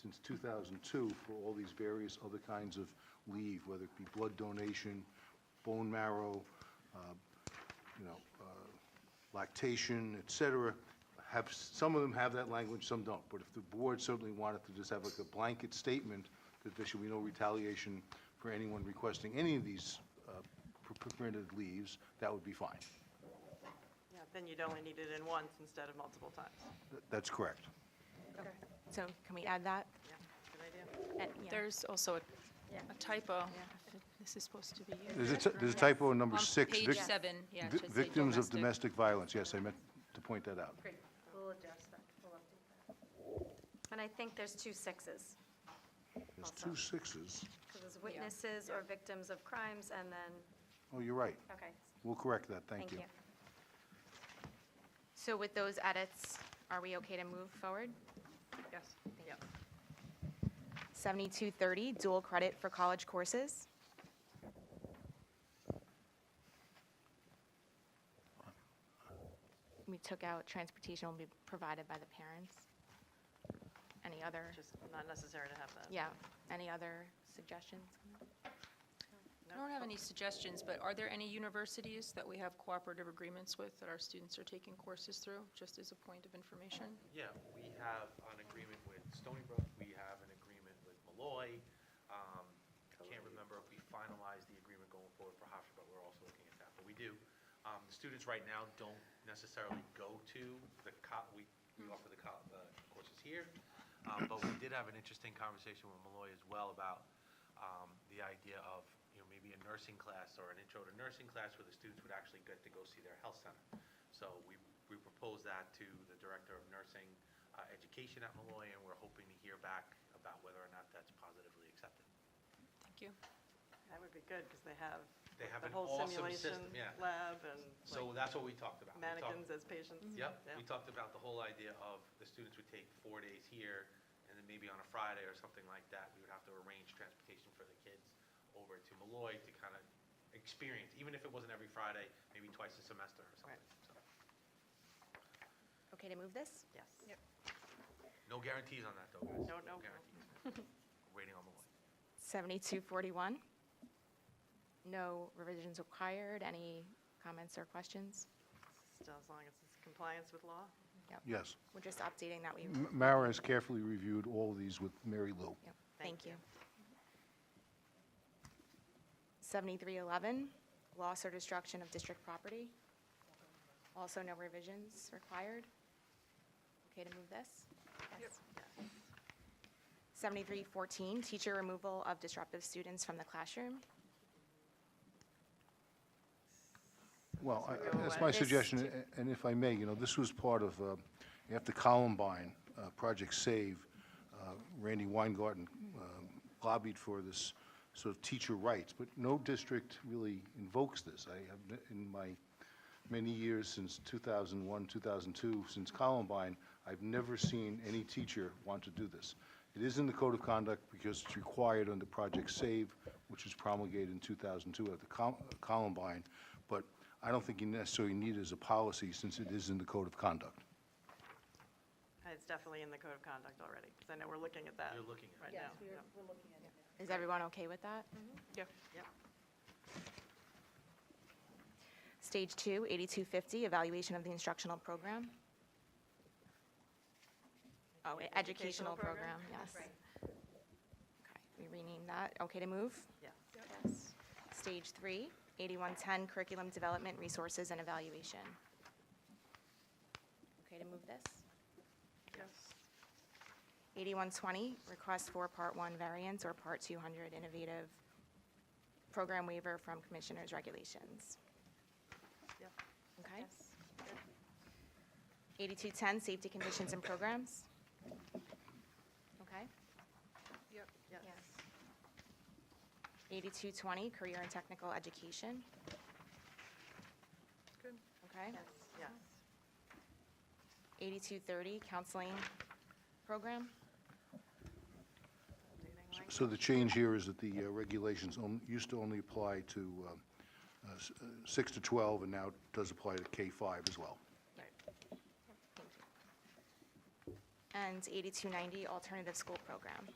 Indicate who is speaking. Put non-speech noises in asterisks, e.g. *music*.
Speaker 1: since 2002 for all these various other kinds of leave, whether it be blood donation, bone marrow, uh, you know, uh, lactation, et cetera, have, some of them have that language, some don't. But if the board certainly wanted to just have like a blanket statement that there should be no retaliation for anyone requesting any of these uh, per- permitted leaves, that would be fine.
Speaker 2: Yeah, then you'd only need it in once instead of multiple times.
Speaker 1: Th- That's correct.
Speaker 3: So can we add that?
Speaker 2: Yeah, good idea.
Speaker 3: And- yeah.
Speaker 4: There's also a
Speaker 5: Yeah.
Speaker 4: a typo. This is supposed to be.
Speaker 1: There's a t- there's a typo in number
Speaker 4: On
Speaker 1: six.
Speaker 4: page
Speaker 1: vic-
Speaker 4: seven, yeah, it
Speaker 1: vi-
Speaker 4: should say
Speaker 1: Victims of domestic
Speaker 4: domestic.
Speaker 1: violence, yes, I meant to point that out.
Speaker 5: Great, we'll adjust that, we'll update that. And I think there's two sixes,
Speaker 1: There's two sixes.
Speaker 5: because there's witnesses or victims of crimes, and then,
Speaker 1: Oh, you're right.
Speaker 5: okay,
Speaker 1: We'll correct that, thank
Speaker 5: thank
Speaker 1: you.
Speaker 5: you.
Speaker 3: So with those edits, are we okay to move forward?
Speaker 2: Yes, yeah.
Speaker 3: 7230, dual credit for college courses. We took out transportation will be provided by the parents. Any other,
Speaker 2: Just not necessary to have that.
Speaker 3: yeah, any other suggestions?
Speaker 4: I don't have any suggestions, but are there any universities that we have cooperative agreements with that our students are taking courses through, just as a point of information?
Speaker 6: Yeah, we have an agreement with Stony Brook, we have an agreement with Malloy. Um, I Can't remember if we finalized the agreement going forward for Hofstra, but we're also looking at that, but we do. Um, The students right now don't necessarily go to the co we, we offer the co- the courses here. Um, But we did have an interesting conversation with Malloy as well about um, the idea of, you know, maybe a nursing class or an intro to nursing class where the students would actually get to go see their health center. So we, we proposed that to the Director of Nursing uh, Education at Malloy, and we're hoping to hear back about whether or not that's positively accepted.
Speaker 4: Thank you.
Speaker 2: That would be good, because they have
Speaker 6: They have
Speaker 2: the
Speaker 6: an
Speaker 2: whole
Speaker 6: awesome
Speaker 2: simulation
Speaker 6: system, yeah.
Speaker 2: lab and
Speaker 6: So that's what we talked about.
Speaker 2: like
Speaker 6: We talked-
Speaker 2: mannequins as patients.
Speaker 6: Yep,
Speaker 2: Yeah.
Speaker 6: we talked about the whole idea of the students would take four days here, and then maybe on a Friday or something like that, we would have to arrange transportation for the kids over to Malloy to kind of experience, even if it wasn't every Friday, maybe twice a semester or something. So,
Speaker 3: Okay to move this?
Speaker 2: Yes.
Speaker 6: No guarantees on that, though, guys.
Speaker 2: No, no, no. *laughs*
Speaker 6: guarantees. We're Waiting on Malloy.
Speaker 3: 7241, no revisions required. Any comments or questions?
Speaker 2: Still, as long as it's compliance with law.
Speaker 3: Yep.
Speaker 1: Yes.
Speaker 3: We're just updating that we,
Speaker 1: M- Mara has carefully reviewed all of these with Mary Lou.
Speaker 3: yep,
Speaker 2: Thank
Speaker 3: thank you.
Speaker 2: you.
Speaker 3: 7311, loss or destruction of district property. Also no revisions required. Okay to move this? Yes. 7314, teacher removal of disruptive students from the classroom.
Speaker 1: Well, I-
Speaker 2: Go
Speaker 1: that's
Speaker 2: away.
Speaker 1: my
Speaker 3: This
Speaker 1: suggestion,
Speaker 3: to-
Speaker 1: a- and if I may, you know, this was part of, uh, after Columbine, uh, Project Save, uh, Randy Weingarten um, lobbied for this sort of teacher rights, but no district really invokes this. I have, n- in my many years since 2001, 2002, since Columbine, I've never seen any teacher want to do this. It is in the Code of Conduct because it's required under Project Save, which was promulgated in 2002 at the Col- Columbine, but I don't think you necessarily need it as a policy since it is in the Code of Conduct.
Speaker 2: It's definitely in the code of conduct already, because I know we're looking at that.
Speaker 6: You're looking
Speaker 2: Right
Speaker 6: at it.
Speaker 2: now.
Speaker 5: Yes, we're,
Speaker 2: Yep.
Speaker 5: we're looking at it now.
Speaker 3: Is everyone okay with that?
Speaker 2: Yep.
Speaker 3: Stage two, 8250, evaluation of the instructional program. Oh, e-
Speaker 2: Educational
Speaker 3: educational program,
Speaker 2: program?
Speaker 3: yes. Okay, we rename that. Okay to move?
Speaker 2: Yes.
Speaker 3: Yes. Stage three, 8110, curriculum development, resources, and evaluation. Okay to move this?
Speaker 2: Yes.
Speaker 3: 8120, request for Part 1 variance or Part 200 innovative program waiver from Commissioners' regulations.
Speaker 2: Yep.
Speaker 3: Okay? 8210, safety conditions and programs. Okay?
Speaker 2: Yep. Yes.
Speaker 3: 8220, career and technical education.
Speaker 2: Good.
Speaker 3: Okay?
Speaker 2: Yes, yes.
Speaker 3: 8230, counseling program.
Speaker 2: Updating
Speaker 1: So-
Speaker 2: language.
Speaker 1: So the change here is that the uh, regulations on- used to only apply to um, uh, s- uh, 6 to 12, and now it does apply to K-5 as well.
Speaker 2: Right.
Speaker 3: Thank you. and 8290 Alternative School Program.